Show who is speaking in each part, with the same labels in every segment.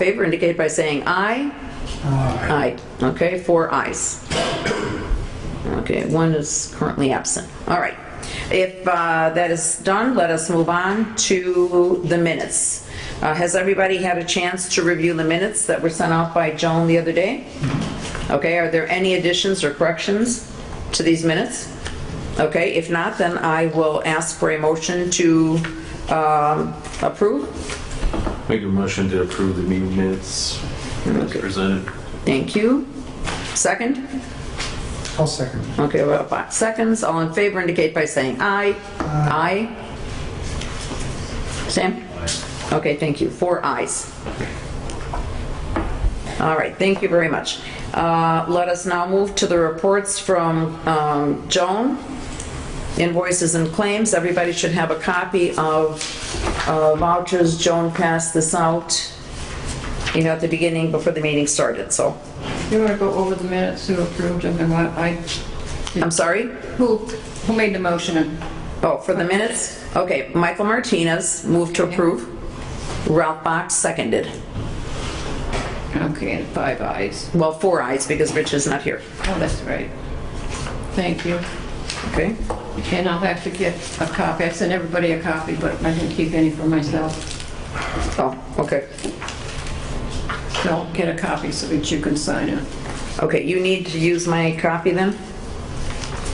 Speaker 1: favor indicate by saying aye. Aye. Okay, four ayes. Okay, one is currently absent. All right. If uh, that is done, let us move on to the minutes. Uh, Has everybody had a chance to review the minutes that were sent out by Joan the other day? Okay, are there any additions or corrections to these minutes? Okay, if not, then I will ask for a motion to um, approve.
Speaker 2: Make a motion to approve the meeting minutes as presented.
Speaker 1: Thank you. Second?
Speaker 3: I'll second.
Speaker 1: Okay, about five seconds. All in favor indicate by saying aye. Aye. Sam? Okay, thank you. Four ayes. All right, thank you very much. Uh, Let us now move to the reports from um, Joan. Invoices and claims. Everybody should have a copy of uh, vouchers. Joan passed this out, you know, at the beginning before the meeting started, so.
Speaker 4: You want to go over the minutes who approved them and what I,
Speaker 1: I'm sorry?
Speaker 4: who, who made the motion and
Speaker 1: Oh, for the minutes? Okay, Michael Martinez moved to approve. Ralph Box seconded.
Speaker 4: Okay, and five eyes.
Speaker 1: Well, four eyes because Rich is not here.
Speaker 4: Oh, that's right. Thank you.
Speaker 1: Okay?
Speaker 4: And I'll have to get a copy. I sent everybody a copy, but I didn't keep any for myself.
Speaker 1: Oh, okay.
Speaker 4: So I'll get a copy so that you can sign it.
Speaker 1: Okay, you need to use my copy then?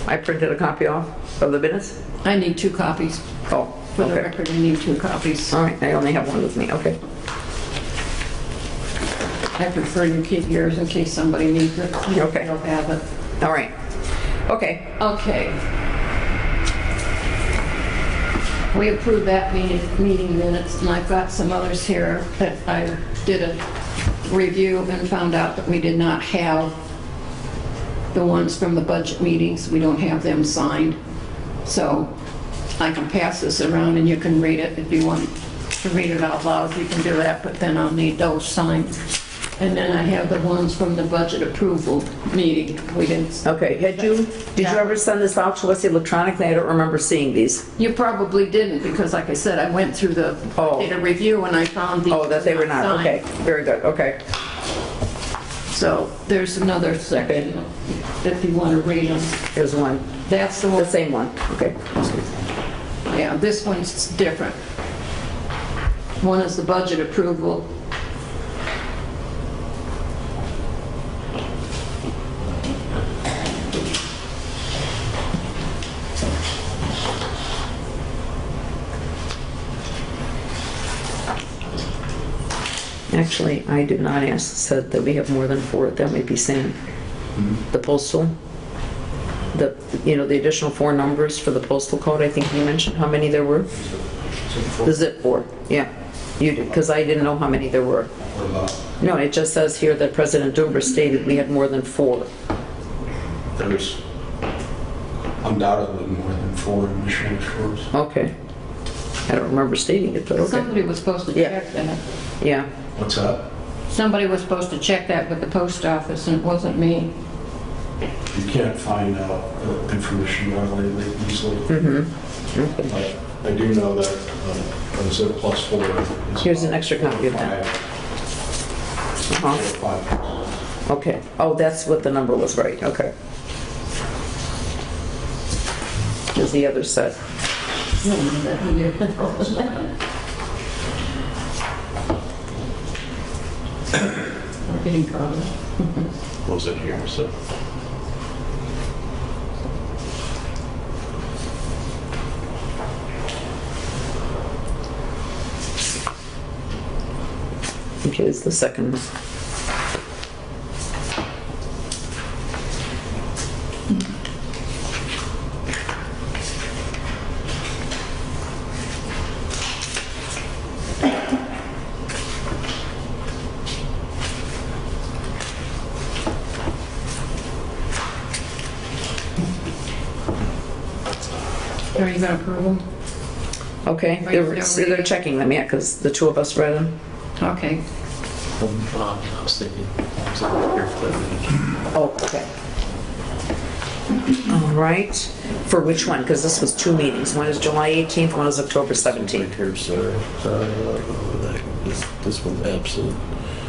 Speaker 1: I printed a copy off of the minutes?
Speaker 4: I need two copies.
Speaker 1: Oh,
Speaker 4: For the
Speaker 1: okay.
Speaker 4: record, I need two copies.
Speaker 1: All right, I only have one with me, okay.
Speaker 4: I prefer you keep yours in case somebody needs it.
Speaker 1: Okay.
Speaker 4: They'll have it.
Speaker 1: All right. Okay,
Speaker 4: Okay. We approved that meeting, meeting minutes, and I've got some others here that I did a review and found out that we did not have the ones from the budget meetings, we don't have them signed. So I can pass this around and you can read it if you want to read it out loud, you can do that, but then I'll need those signed. And then I have the ones from the budget approval meeting, we didn't
Speaker 1: okay. Had you, did you
Speaker 4: Yeah.
Speaker 1: ever send this out to us electronically? I don't remember seeing these.
Speaker 4: You probably didn't, because like I said, I went through the,
Speaker 1: Oh.
Speaker 4: did a review and I found the.
Speaker 1: Oh, that they were not, okay. Very good, okay.
Speaker 4: So there's another section if you want to read them.
Speaker 1: Here's one,
Speaker 4: That's the
Speaker 1: the
Speaker 4: one,
Speaker 1: same one, okay.
Speaker 4: yeah, this one's different. One is the budget approval.
Speaker 1: Actually, I did not ask, said that we have more than four, that may be Sam. The postal, the, you know, the additional four numbers for the postal code, I think you mentioned how many there were? The zip four, yeah. You did, because I didn't know how many there were. No, it just says here that President Dumber stated we had more than four.
Speaker 5: There's undoubtedly more than four in Michigan Shores.
Speaker 1: Okay. I don't remember stating it, but okay.
Speaker 4: Somebody was supposed to
Speaker 1: Yeah.
Speaker 4: check that.
Speaker 1: Yeah,
Speaker 5: What's up?
Speaker 4: Somebody was supposed to check that with the post office and it wasn't me.
Speaker 5: You can't find out the information readily easily.
Speaker 1: Hmm.
Speaker 5: But I do know that um, a zip plus four is.
Speaker 1: Here's an
Speaker 5: about
Speaker 1: extra copy of that.
Speaker 5: five-
Speaker 1: uh-huh,
Speaker 5: Five.
Speaker 1: okay. Oh, that's what the number was, right, okay. Is the other set.
Speaker 4: We're getting caught up.
Speaker 2: Was in here, so.
Speaker 1: Okay, it's the second one.
Speaker 4: Are you gonna approve them?
Speaker 1: Okay,
Speaker 4: Right,
Speaker 1: they're,
Speaker 4: they're
Speaker 1: so they're
Speaker 4: reading.
Speaker 1: checking them, yeah, because the two of us read them.
Speaker 4: Okay.
Speaker 2: Um, I was thinking, I was looking here for that.
Speaker 1: Oh, okay. All right, for which one? Because this was two meetings. One is July 18th, one is October 17th.
Speaker 2: Right here, sorry. Uh, that- This this one's absent.